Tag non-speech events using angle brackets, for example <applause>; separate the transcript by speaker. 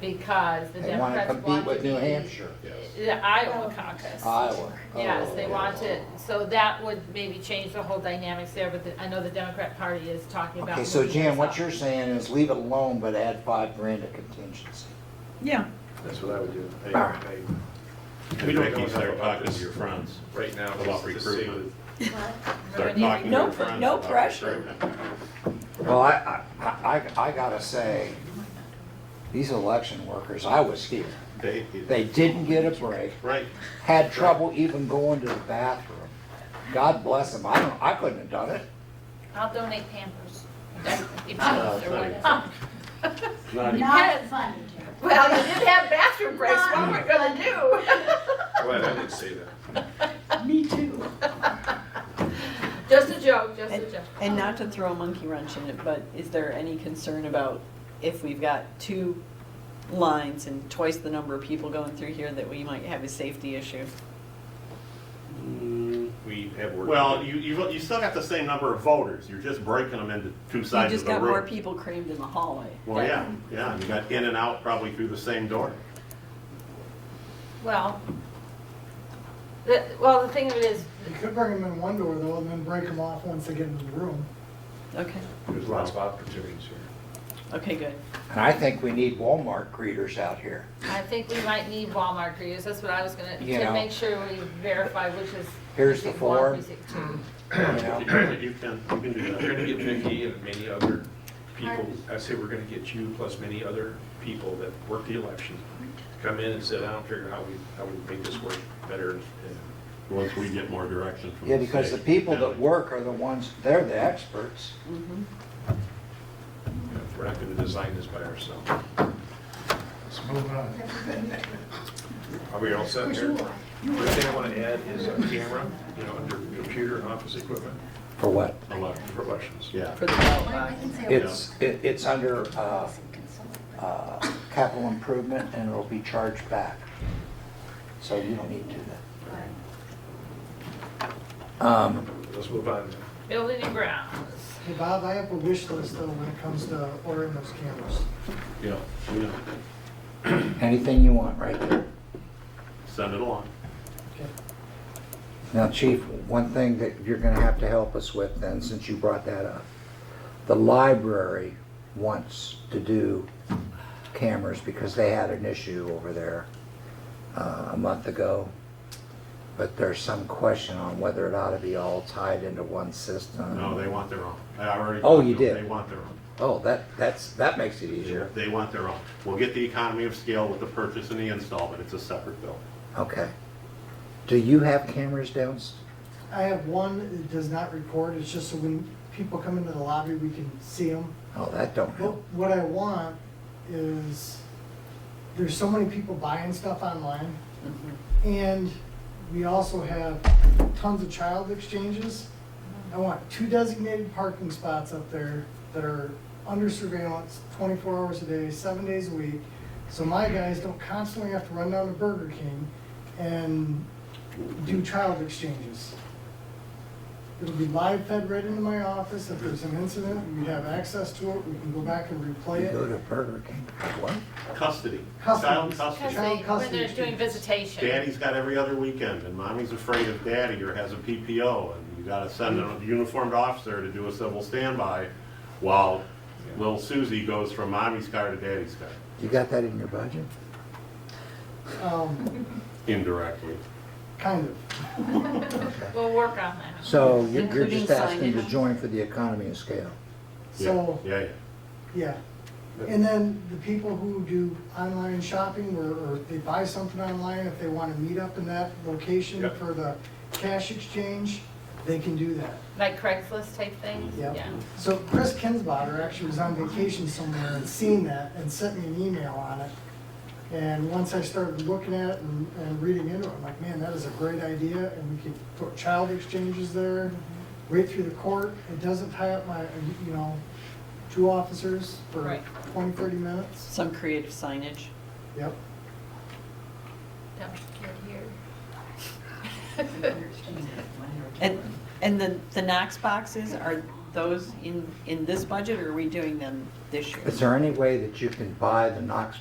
Speaker 1: because the
Speaker 2: They wanna
Speaker 1: Democrats
Speaker 2: compete
Speaker 1: want to
Speaker 2: with New
Speaker 1: be
Speaker 2: Hampshire,
Speaker 3: Yes.
Speaker 1: the Iowa caucus.
Speaker 2: Iowa.
Speaker 1: Yes, they
Speaker 2: Oh.
Speaker 1: want it, so that would maybe change the whole dynamics there, but the- I know the Democrat Party is talking about.
Speaker 2: Okay, so
Speaker 1: moving
Speaker 2: Jan,
Speaker 1: this
Speaker 2: what
Speaker 1: up.
Speaker 2: you're saying is leave it alone, but add five grand to contingency.
Speaker 4: Yeah,
Speaker 3: That's what I would do. Hey,
Speaker 2: Alright.
Speaker 3: hey,
Speaker 5: We don't know how to talk to your friends.
Speaker 3: Right now,
Speaker 5: About
Speaker 3: just to see
Speaker 5: recruitment.
Speaker 3: with-
Speaker 5: Start
Speaker 1: Everybody-
Speaker 5: knocking
Speaker 4: No
Speaker 5: your
Speaker 4: pr-
Speaker 5: friends
Speaker 4: no
Speaker 5: about
Speaker 4: pressure.
Speaker 5: recruitment.
Speaker 2: Well, I, I, I- I gotta say, these election workers, I was here,
Speaker 3: they.
Speaker 2: they didn't get a break,
Speaker 3: Right,
Speaker 2: had trouble even going to the bathroom. God bless them, I don't, I couldn't have done it.
Speaker 1: I'll donate Pampers.
Speaker 2: <laughs> Oh,
Speaker 5: No, it's not
Speaker 1: <laughs>
Speaker 5: even- it's not even-
Speaker 6: Not funny, Jerry.
Speaker 1: Well, you did have bathroom breaks, what am I gonna do?
Speaker 3: well, I didn't say that.
Speaker 6: Me too.
Speaker 1: <laughs> Just a joke, just a joke.
Speaker 4: and not to throw a monkey wrench in it, but is there any concern about if we've got two lines and twice the number of people going through here that we might have a safety issue?
Speaker 7: Mm,
Speaker 3: We have worked.
Speaker 7: Well, you, you, you still got the same number of voters, you're just breaking them into two
Speaker 4: You
Speaker 7: sides of
Speaker 4: just
Speaker 7: the
Speaker 4: got
Speaker 7: room.
Speaker 4: more people crammed in the hallway.
Speaker 7: Well, yeah, yeah, you got in and out probably through the same door.
Speaker 1: Well, the, well, the thing of it is,
Speaker 8: You could bring them in one door though, and then break them off once they get into the room.
Speaker 4: Okay,
Speaker 3: There's lots of opportunities here.
Speaker 4: okay, good.
Speaker 2: And I think we need Walmart greeters out here.
Speaker 1: I think we might need Walmart crews, that's what I was gonna,
Speaker 2: You
Speaker 1: to
Speaker 2: know.
Speaker 1: make sure we verify which is.
Speaker 2: Here's the
Speaker 1: precinct one,
Speaker 2: form.
Speaker 1: precinct two.
Speaker 2: You know,
Speaker 7: You can, you can do
Speaker 3: We're
Speaker 7: that.
Speaker 3: gonna get Vicky and many other people,
Speaker 6: Pardon?
Speaker 3: I say we're gonna get you plus many other people that work the election, come in and said, I don't figure how we, how we make this work better. and-
Speaker 7: Once we get more direction from the
Speaker 2: Yeah, because the
Speaker 7: state.
Speaker 2: people that work are the ones, they're the experts.
Speaker 4: Mhm.
Speaker 3: and We're not gonna design this by ourselves.
Speaker 8: Let's move on.
Speaker 3: Are we all set
Speaker 6: Because
Speaker 3: there?
Speaker 6: you
Speaker 3: The
Speaker 6: are.
Speaker 3: only thing I wanna add is a camera, you know, under computer and office equipment
Speaker 2: For what?
Speaker 3: for elections.
Speaker 7: Yeah.
Speaker 4: For the ballot
Speaker 6: I
Speaker 4: box.
Speaker 6: can say what
Speaker 2: It's, it- it's under uh,
Speaker 6: I'm consulting.
Speaker 2: uh, capital improvement and it'll be charged back. So you don't need to do that. Um,
Speaker 3: Let's move on.
Speaker 1: Building and grounds.
Speaker 8: Hey Bob, I have a wish list though when it comes to ordering those cameras.
Speaker 7: Yeah, we know.
Speaker 2: Anything you want right there.
Speaker 7: send it along.
Speaker 2: Now, Chief, one thing that you're gonna have to help us with then, since you brought that up. The library wants to do cameras because they had an issue over there uh, a month ago. But there's some question on whether it ought to be all tied into one system.
Speaker 7: No, they want their own. I already.
Speaker 2: Oh,
Speaker 7: talked to
Speaker 2: you
Speaker 7: them.
Speaker 2: did.
Speaker 7: They want their own.
Speaker 2: Oh, that, that's, that makes it easier.
Speaker 7: They want their own. We'll get the economy of scale with the purchase and the install, but it's a separate bill.
Speaker 2: Okay. Do you have cameras down?
Speaker 8: I have one, it does not record, it's just so when people come into the lobby, we can see them.
Speaker 2: Oh, that don't
Speaker 8: But
Speaker 2: help.
Speaker 8: what I want is, there's so many people buying stuff online,
Speaker 4: Mhm.
Speaker 8: and we also have tons of child exchanges. I want two designated parking spots up there that are under surveillance twenty-four hours a day, seven days a week. So my guys don't constantly have to run down to Burger King and do child exchanges. It'll be live fed right into my office. If there's an incident, we have access to it. We can go back and
Speaker 7: oh,
Speaker 8: replay
Speaker 2: You go
Speaker 8: it.
Speaker 2: to Burger King, what?
Speaker 7: Custody.
Speaker 8: Custody.
Speaker 7: Child custody.
Speaker 1: Custody, when
Speaker 8: custody
Speaker 1: they're doing
Speaker 8: students.
Speaker 1: visitation.
Speaker 7: Daddy's got every other weekend, and mommy's afraid of daddy or has a PPO, and you gotta send a uniformed officer to do a civil standby while little Susie goes from mommy's car to daddy's car.
Speaker 2: You got that in your budget?
Speaker 8: Um,
Speaker 7: Indirectly.
Speaker 8: kind of.
Speaker 1: We'll work on that.
Speaker 2: So you're you're
Speaker 4: Including
Speaker 2: just asking to
Speaker 4: signage.
Speaker 2: join for the economy of scale?
Speaker 7: Yeah,
Speaker 8: So,
Speaker 7: Yeah, yeah.
Speaker 8: yeah. And then the people who do online shopping or, or they buy something online, if they want to meet up in that location
Speaker 3: Yep.
Speaker 8: for the cash exchange, they can do that.
Speaker 1: Like Craigslist type things?
Speaker 8: Yep. So Chris Kinsbotter actually was on vacation somewhere and seen that and sent me an email on it. And once I started looking at it and, and reading into it, I'm like, man, that is a great idea, and we could put child exchanges there, wait through the court, it doesn't tie up my, you know, two officers for
Speaker 1: Right.
Speaker 8: 20, 30 minutes.
Speaker 4: Some creative signage.
Speaker 8: Yep.
Speaker 1: Yep, good here.
Speaker 4: And, and the, the Knox boxes, are those in, in this budget, or are we doing them this year?
Speaker 2: Is there any way that you can buy the Knox